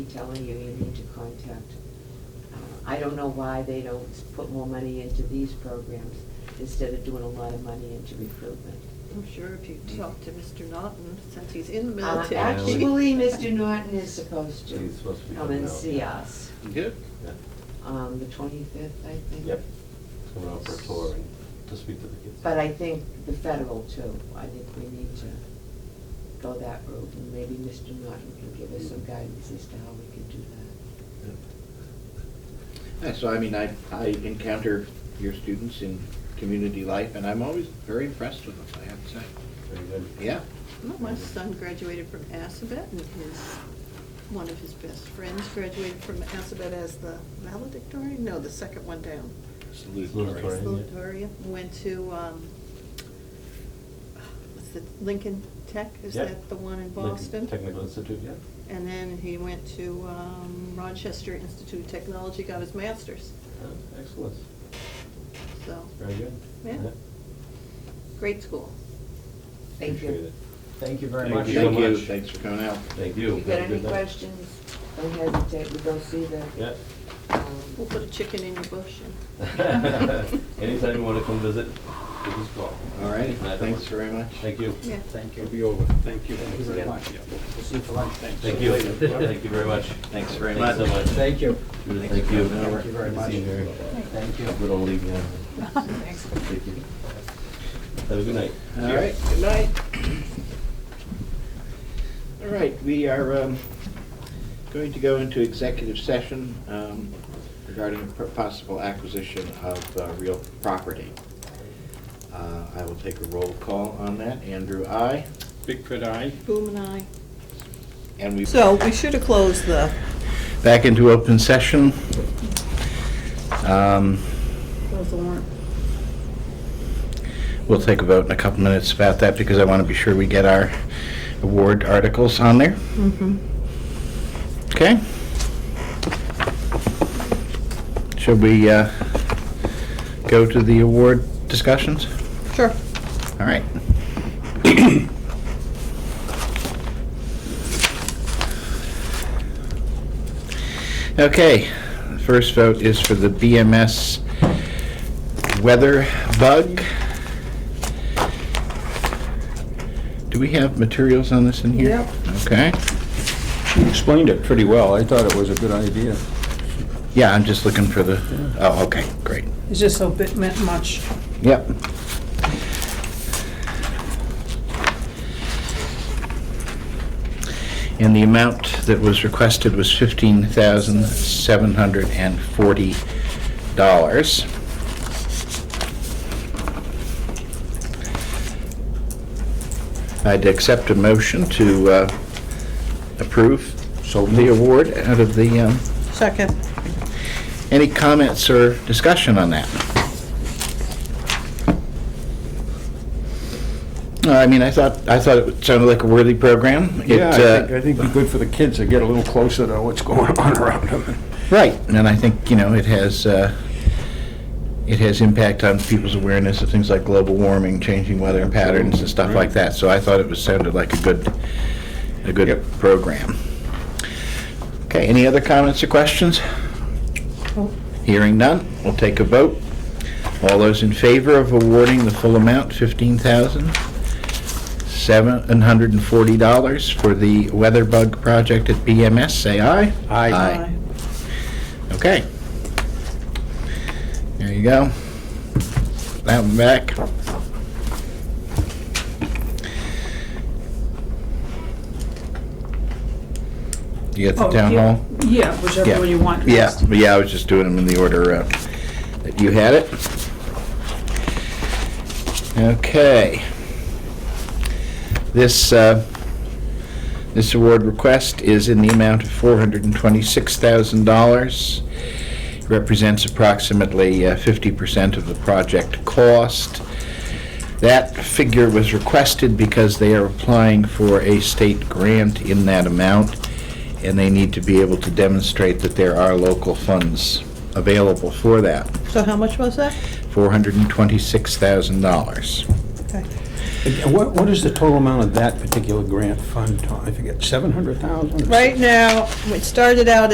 telling you, you need to contact. uh, I don't know why they don't put more money into these programs instead of doing a lot of money into recruitment. I'm sure if you talk to Mr. Naughton, since he's in the Uh, military. Actually, Mr. Norton is supposed to He's supposed to be come and coming out. see us Good. Yeah. on the twenty-fifth, I think. Yep. Coming out for a tour and to speak to the kids. But I think the federal too, I think we need to go that route, and maybe Mr. Norton can give us some guidance as to how we can do that. Yeah, so I mean, I, I encounter your students in community life, and I'm always very impressed with them, I have to say. Very good. Yeah, Well, My son graduated from Assabet, and his, one of his best friends graduated from Assabet as the valedictorian, no, the second one down. salutatory. Salutatory. yeah. Valedictorian, went to, um, what's the, Lincoln Tech, is Yep. that the one in Lincoln Boston? Technical Institute, yeah. And then he went to um, Rochester Institute of Technology, got his master's, Uh, Excellent, so, very good. Yeah. great school. Thank Appreciate you. it. Thank you very Thank much. you, Thank you, thanks for coming out. Thank If you. you got Have a any good night. questions, don't hesitate, we go see the, Yeah. um, We'll put a chicken in your bush and. Anytime you want to come visit, give us a call. All right, Glad to thanks work. very much. Thank you. Yeah. Thank It'll you. be over. Thank you Thank you very again. much. We'll see you for lunch. Thank you. Thank you very much. Thanks very Thanks so much. much. Thank you. Judith, Thank you. Thank you very Good to see much. you, Mary. Thank you. Good old league, yeah. Thank you. Have a good night. All right, good night. All right, we are um, going to go into executive session um, regarding a possible acquisition of uh, real property. Uh, I will take a roll call on that. Andrew, aye. Bigfoot eye. Boom and I. And we. So we should have closed the. Back into open session. Um, Close the warrant. We'll take a vote in a couple minutes about that because I want to be sure we get our award articles on there. Okay? Should we uh, go to the award discussions? Sure. All right. Okay, the first vote is for the BMS weather bug. Do we have materials on this in here? Yep. Okay. You explained it pretty well. I thought it was a good idea. Yeah, I'm just looking for the, oh, okay, great. It's just so bit meant much. Yep. And the amount that was requested was fifteen thousand seven hundred and forty dollars. I'd accept a motion to uh, approve the award out of the, um, Second. any comments or discussion on that? No, Uh, I mean, I thought, I thought it sounded like a worthy program. It, Yeah, I uh, think, I think it'd be good for the kids to get a little closer to what's going on around them. Right, and I think, you know, it has, uh, it has impact on people's awareness of things like global warming, changing weather patterns and stuff like that. So I thought it was, sounded like a good, a good program. Okay, any other comments or questions? Hearing none, we'll take a vote. All those in favor of awarding the full amount, fifteen thousand, seven hundred and forty dollars for the Weatherbug project at BMS, say aye. Aye. Okay. There you go. That one back. You got the Oh, town yeah. hall? Yeah, whichever Yeah. one you want. Yeah, first. yeah, I was just doing them in the order uh, that you had it. Okay. This, uh, this award request is in the amount of $426,000. Represents approximately uh, 50% of the project cost. That figure was requested because they are applying for a state grant in that amount, and they need to be able to demonstrate that there are local funds available for that, So how much was that? $426,000. Okay. Again, What, what is the total amount of that particular grant fund, Tom? I forget, 700,000? Oh, Right now, it started out